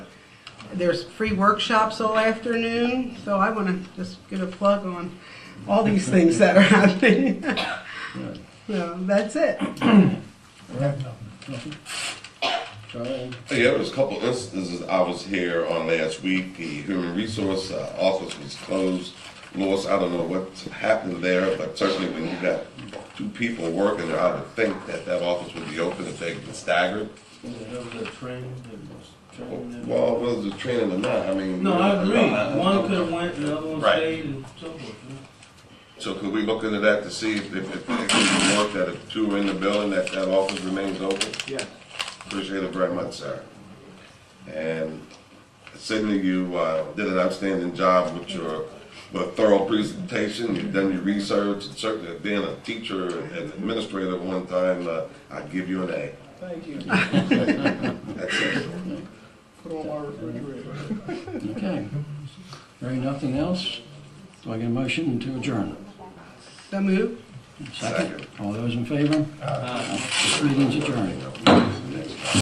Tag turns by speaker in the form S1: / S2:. S1: There's free workshops all afternoon, so I want to just get a plug on all these things that are happening. So that's it.
S2: Yeah,
S3: Charlie?
S2: there was a couple instances I was here on last week. The human resource uh, office was closed. Louis, I don't know what happened there, but certainly when you got two people working there, I would think that that office would be open if they could stagger.
S3: There was a train that was trained there.
S2: Well, whether the training or not, I mean.
S3: No, I agree. One could
S2: could.
S3: have went, the other one
S2: Right.
S3: stayed and so forth.
S2: So could we look into that to see if, if it could be worked that if two are in the building, that that office remains open?
S3: Yeah.
S2: Appreciate it very much, sir. And Sydney, you uh, did an outstanding job with your, with a thorough presentation. You've done your research, and certainly being a teacher and administrator at one time, uh, I give you an A.
S4: Thank you.
S2: That's it.
S4: Put on my refrigerator.
S5: Okay. Hearing nothing else, do I get a motion to adjourn?
S1: So move.
S5: Second?
S2: Second.
S5: All those in favor? This meeting's adjourned.